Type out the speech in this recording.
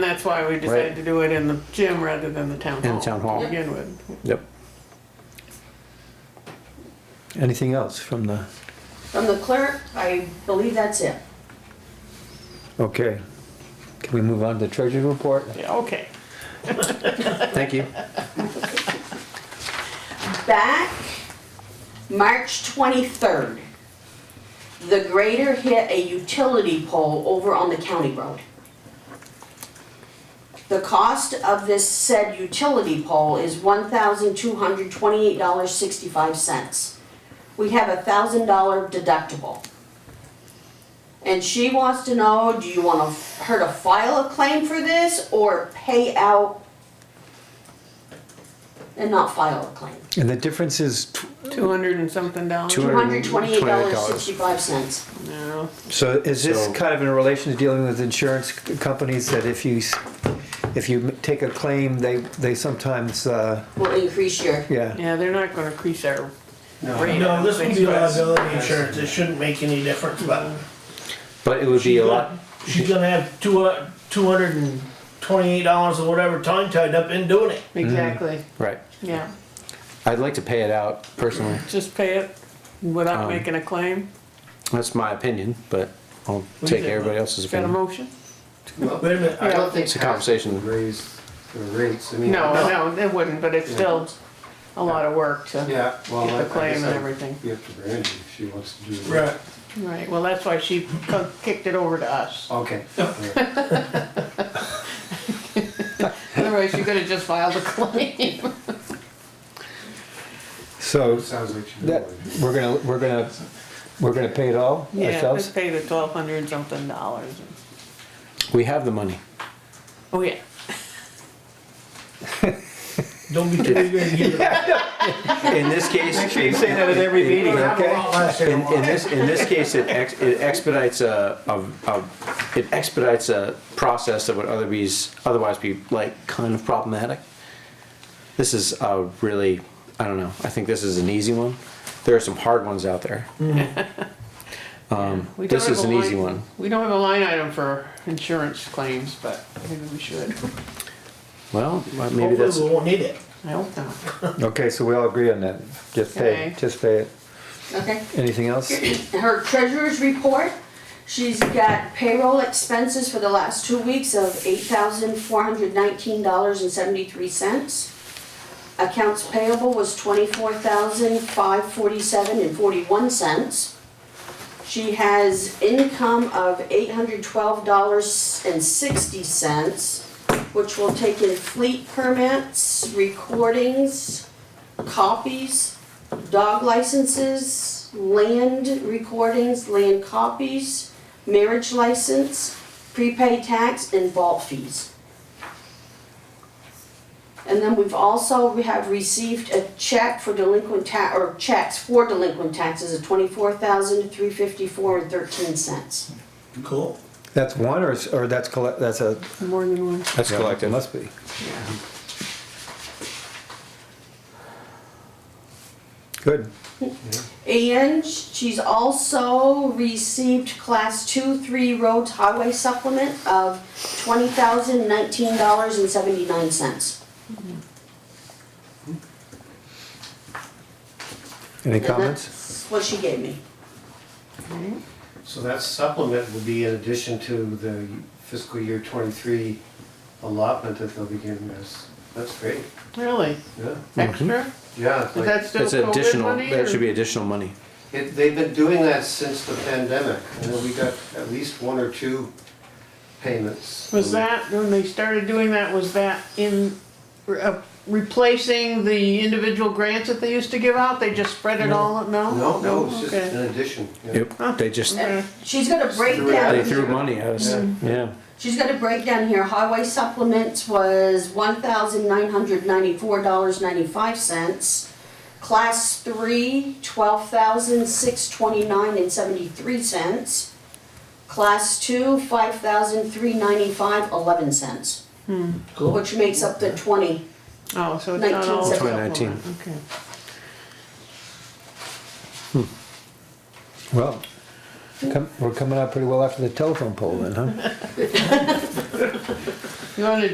That's why we Right. decided to do it in the gym rather than the town hall. In the town hall. To begin with. Yep. Anything else from the, From the clerk, I believe that's it. okay. Can we move on to treasury report? Yeah, okay. Thank you. Back March 23rd, the grader hit a utility pole over on the county road. The cost of this said utility pole is $1,228.65. We have a $1,000 deductible. And she wants to know, do you want to- her to file a claim for this or pay out and not file a claim? And the difference is, tw- Two hundred and something dollars. Two- $228.65. No, so is this So- kind of in relation to dealing with insurance c- companies that if you, s- if you m- take a claim, they, they sometimes, uh, Will increase your, yeah. yeah, they're not gonna increase our rate. No, this would be Because- liability insurance, it shouldn't make any difference, but. But it would be she's a gonna- lot, She's gonna have two, uh, two hundred and twenty-eight dollars or whatever time tied up in doing Mm-hmm. it. Exactly, right. yeah. I'd like to pay it out personally. Just pay it without Um, making a claim. That's my opinion, but I'll do you take think, everybody Mike? else's Got a opinion. motion? Wait a minute, I I- don't think. It's a conversation. Raise the rates, I mean. No, no, it wouldn't, but it's still a lot of work to Yeah, well. get I- I the claim guess and I'd everything. Be up to Brandy if she wants to do it. right, Right, well, that's why she co- kicked it over to us. Okay. all right. Otherwise, you could have just filed a claim. So Sounds like she. that, we're gonna, we're gonna, we're gonna pay it all Yeah, let's ourselves? pay the twelve hundred something dollars. We have the money. Oh, yeah. don't be too eager to give it up. In this case. You say that at every meeting, okay? In, in this, in this case, it ex- it expedites a, a- a- it expedites a process that would otherwise, otherwise be like kind of problematic. This is a really, I don't know, I think this is an easy one. There are some hard ones out there. Um, We don't this have is a an easy line- one. We don't have a line item for insurance claims, but maybe we should. Well, uh, maybe that's, Hopefully we won't need it. I hope not. Okay, so we all agree on that. Just pay, Okay. just pay it. okay. Anything else? Her treasurer's report, she's got payroll expenses for the last two weeks of eight thousand four hundred nineteen dollars and seventy-three cents. Accounts payable was twenty-four thousand five forty-seven and forty-one cents. She has income of eight hundred twelve dollars and sixty cents, which will take in fleet permits, recordings, copies, dog licenses, land recordings, land copies, marriage license, prepaid tax, and vault fees. And then we've also, we have received a check for delinquent ta, or checks for delinquent taxes of twenty-four thousand, three fifty-four and thirteen cents. Cool. That's one or, s- or that's, colle- that's a, More than one. that's Yeah, It collective. must be. Good. And she's also received class two, three roads highway supplement of twenty thousand, nineteen dollars and seventy-nine cents. Any And comments? that's What she gave me. So that supplement will be in addition to the fiscal year twenty-three allotment that they'll be giving us. That's great, Really? yeah, Mm-hmm. Extra? yeah. it's Is like- that still It's COVID additional, money? that should or- be additional money. It, they've been doing that since the pandemic, and then we got at least one or two payments. Was that, when they started doing that, was that in, re- uh, replacing the individual grants that they used to give out? They just spread it all, no? No, no, it's just uh, Okay. an addition. yeah. Yep, they just, Okay. She's got a they breakdown, threw money at us, Yeah. yeah. she's got a breakdown here, highway supplements was one thousand nine hundred ninety-four dollars ninety-five cents. Class three, twelve thousand six twenty-nine and seventy-three cents. Class two, five thousand three ninety-five, eleven cents, Cool. which makes up the twenty. Oh, so it's not all. 19. supplement, Okay. Well, come- we're coming out pretty well after the telephone poll then, huh? You wanna